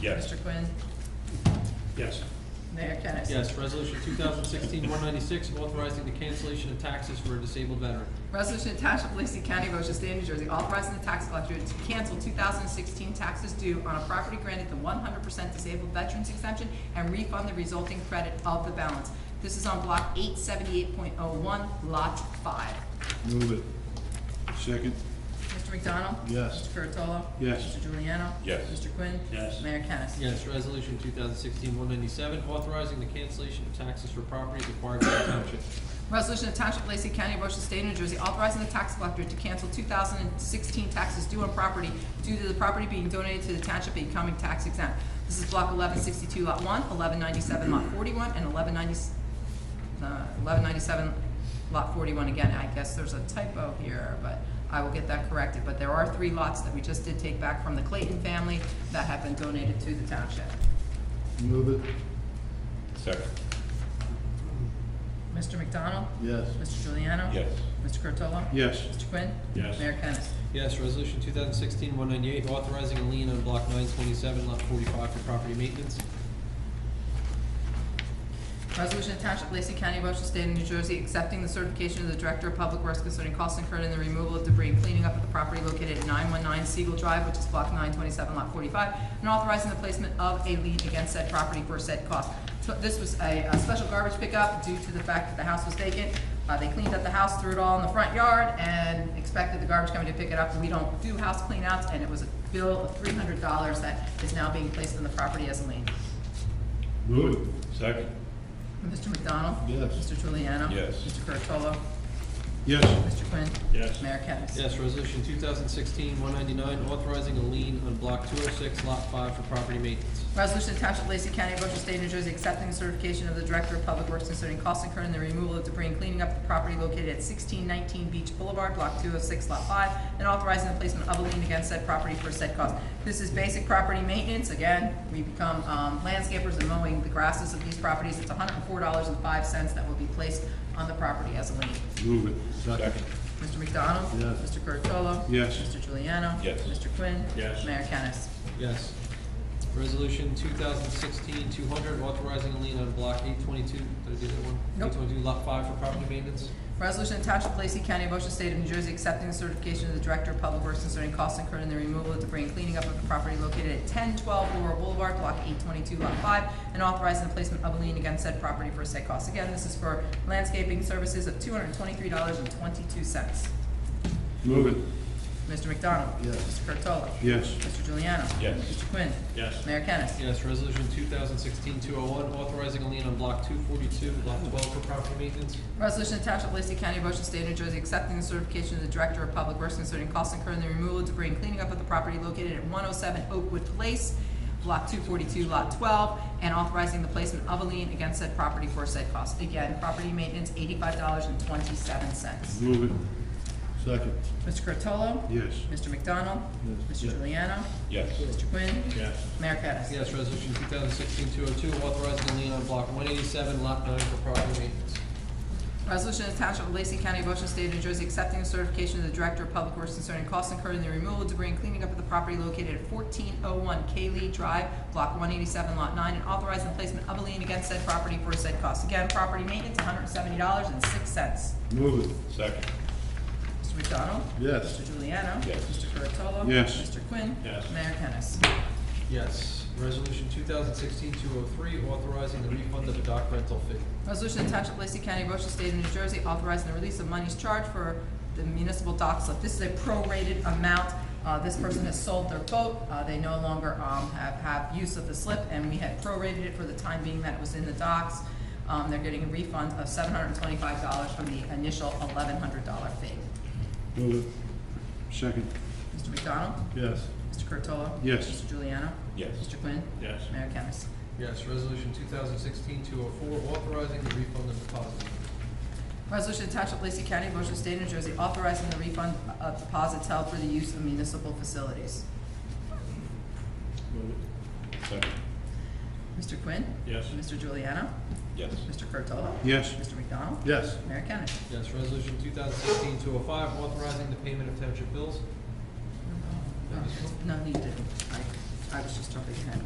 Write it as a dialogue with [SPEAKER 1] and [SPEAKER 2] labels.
[SPEAKER 1] Yes.
[SPEAKER 2] Mr. Quinn?
[SPEAKER 1] Yes.
[SPEAKER 2] Mayor Kennas?
[SPEAKER 3] Yes, resolution 2016-196, authorizing the cancellation of taxes for a disabled veteran.
[SPEAKER 2] Resolution to Township of Lacey County, Ocean State, New Jersey, authorizing the tax collector to cancel 2016 taxes due on a property granted the 100% disabled veterans exemption and refund the resulting credit of the balance. This is on Block 878.01, Lot 5.
[SPEAKER 4] Move it. Second,
[SPEAKER 2] Mr. McDonald?
[SPEAKER 4] Yes.
[SPEAKER 2] Mr. Curatolo?
[SPEAKER 4] Yes.
[SPEAKER 2] Mr. Juliano?
[SPEAKER 1] Yes.
[SPEAKER 2] Mr. Quinn?
[SPEAKER 1] Yes.
[SPEAKER 2] Mayor Kennas?
[SPEAKER 3] Yes, resolution 2016-197, authorizing the cancellation of taxes for property acquired by the township.
[SPEAKER 2] Resolution of Township of Lacey County, Ocean State, New Jersey, authorizing the tax collector to cancel 2016 taxes due on property due to the property being donated to the township becoming tax exempt. This is Block 1162, Lot 1, 1197, Lot 41, and 1190 uh, 1197, Lot 41. Again, I guess there's a typo here, but I will get that corrected. But there are three lots that we just did take back from the Clayton family that have been donated to the township.
[SPEAKER 4] move it,
[SPEAKER 1] Second.
[SPEAKER 2] Mr. McDonald?
[SPEAKER 4] yes.
[SPEAKER 2] Mr. Juliano?
[SPEAKER 1] Yes.
[SPEAKER 2] Mr. Curatolo?
[SPEAKER 4] Yes,
[SPEAKER 2] Mr. Quinn?
[SPEAKER 1] Yes.
[SPEAKER 2] Mayor Kennas?
[SPEAKER 3] Yes, resolution 2016-198, authorizing a lien on block 927, lot 45 for property maintenance.
[SPEAKER 2] Resolution to Township of Lacey County, Ocean State of New Jersey, accepting the certification of the Director of Public Works concerning costs incurred in the removal of debris and cleaning up of the property located at nine one nine Siegel Drive, which is block nine twenty-seven, lot forty-five, and authorizing the placement of a lien against said property for said cost. So This was a, a special garbage pickup due to the fact that the house was vacant. Uh, they cleaned up the house, threw it all in the front yard, and expected the garbage company to pick it up. We don't do house cleanouts, and it was a bill of three hundred dollars that is now being placed on the property as a lien.
[SPEAKER 4] move it,
[SPEAKER 1] Second.
[SPEAKER 2] Mr. McDonald?
[SPEAKER 4] Yes.
[SPEAKER 2] Mr. Juliano?
[SPEAKER 1] Yes.
[SPEAKER 2] Mr. Curatolo?
[SPEAKER 4] yes,
[SPEAKER 2] Mr. Quinn?
[SPEAKER 1] Yes.
[SPEAKER 2] Mayor Kennas?
[SPEAKER 3] Yes, resolution 2016-199, authorizing a lien on block 206, lot 5 for property maintenance.
[SPEAKER 2] Resolution to Township of Lacey County, Ocean State, New Jersey, accepting the certification of the Director of Public Works concerning costs incurred in the removal of debris and cleaning up the property located at sixteen nineteen Beach Boulevard, block two oh six, lot five, and authorizing the placement of a lien against said property for said cost. This is basic property maintenance. Again, we become, um, landscapers and mowing the grasses of these properties. It's hundred and four dollars and five cents that will be placed on the property as a lien.
[SPEAKER 4] move it.
[SPEAKER 1] Second.
[SPEAKER 2] Mr. McDonald?
[SPEAKER 4] Yes.
[SPEAKER 2] Mr. Curatolo?
[SPEAKER 4] Yes.
[SPEAKER 2] Mr. Juliano?
[SPEAKER 1] Yes.
[SPEAKER 2] Mr. Quinn?
[SPEAKER 1] Yes.
[SPEAKER 2] Mayor Kennas?
[SPEAKER 3] Yes. Resolution 2016-200, authorizing a lien on block 822, did I do that one?
[SPEAKER 2] Nope.
[SPEAKER 3] 822, lot 5 for property maintenance.
[SPEAKER 2] Resolution to Township of Lacey County, Ocean State of New Jersey, accepting the certification of the Director of Public Works concerning costs incurred in the removal of debris and cleaning up of the property located at ten twelve Laurel Boulevard, block eight twenty-two, lot five, and authorizing the placement of a lien against said property for said costs. Again, this is for landscaping services of two hundred and twenty-three dollars and twenty-two cents.
[SPEAKER 4] Move it,
[SPEAKER 2] Mr. McDonald?
[SPEAKER 4] Yes.
[SPEAKER 2] Mr. Curatolo?
[SPEAKER 4] yes,
[SPEAKER 2] Mr. Juliano?
[SPEAKER 1] Yes.
[SPEAKER 2] Mr. Quinn?
[SPEAKER 1] Yes.
[SPEAKER 2] Mayor Kennas?
[SPEAKER 3] Yes, resolution 2016-201, authorizing a lien on block 242, lot 12 for property maintenance.
[SPEAKER 2] Resolution to Township of Lacey County, Ocean State, New Jersey, accepting the certification of the Director of Public Works concerning costs incurred in the removal of debris and cleaning up of the property located at one oh seven Oakwood Place, block two forty-two, lot twelve, and authorizing the placement of a lien against said property for said costs. Again, property maintenance, eighty-five dollars and twenty-seven cents.
[SPEAKER 4] move it. Second,
[SPEAKER 2] Mr. Curatolo?
[SPEAKER 4] yes,
[SPEAKER 2] Mr. McDonald?
[SPEAKER 4] Yes.
[SPEAKER 2] Mr. Juliano?
[SPEAKER 1] Yes.
[SPEAKER 2] Mr. Quinn?
[SPEAKER 1] Yes.
[SPEAKER 2] Mayor Kennas?
[SPEAKER 3] Yes, resolution 2016-202, authorizing a lien on block 187, lot 9 for property maintenance.
[SPEAKER 2] Resolution of Township of Lacey County, Ocean State of New Jersey, accepting the certification of the Director of Public Works concerning costs incurred in the removal of debris and cleaning up of the property located at fourteen oh one K Lee Drive, block one eighty-seven, lot nine, and authorizing the placement of a lien against said property for said costs. Again, property maintenance, hundred and seventy dollars and six cents.
[SPEAKER 4] move it,
[SPEAKER 1] Second.
[SPEAKER 2] Mr. McDonald?
[SPEAKER 4] yes,
[SPEAKER 2] Mr. Juliano?
[SPEAKER 1] Yes.
[SPEAKER 2] Mr. Curatolo?
[SPEAKER 4] Yes.
[SPEAKER 2] Mr. Quinn?
[SPEAKER 1] Yes.
[SPEAKER 2] Mayor Kennas?
[SPEAKER 3] Yes, resolution 2016-203, authorizing the refund of a dock rental fee.
[SPEAKER 2] Resolution to Township of Lacey County, Ocean State of New Jersey, authorizing the release of monies charged for the municipal dock slip. This is a prorated amount. Uh, this person has sold their boat. Uh, they no longer, um, have, have use of the slip, and we had prorated it for the time being that it was in the docks. Um, they're getting a refund of seven hundred and twenty-five dollars from the initial eleven hundred dollar fee.
[SPEAKER 4] move it. Second,
[SPEAKER 2] Mr. McDonald?
[SPEAKER 4] yes,
[SPEAKER 2] Mr. Curtola.
[SPEAKER 4] Yes.
[SPEAKER 2] Mr. Juliano?
[SPEAKER 1] Yes.
[SPEAKER 2] Mr. Quinn?
[SPEAKER 1] Yes.
[SPEAKER 2] Mayor Kennas?
[SPEAKER 3] Yes, resolution 2016-204, authorizing the refund of deposit.
[SPEAKER 2] Resolution to Township of Lacey County, Ocean State, New Jersey, authorizing the refund of deposits held for the use of municipal facilities.
[SPEAKER 1] Move it. Second.
[SPEAKER 2] Mr. Quinn?
[SPEAKER 1] Yes.
[SPEAKER 2] Mr. Juliano?
[SPEAKER 1] Yes.
[SPEAKER 2] Mr. Curtola.
[SPEAKER 4] yes,
[SPEAKER 2] Mr. McDonald?
[SPEAKER 4] yes,
[SPEAKER 2] Mayor Kennas?
[SPEAKER 3] Yes, resolution 2016-205, authorizing the payment of township bills.
[SPEAKER 2] No, he didn't. I, I was just jumping ahead.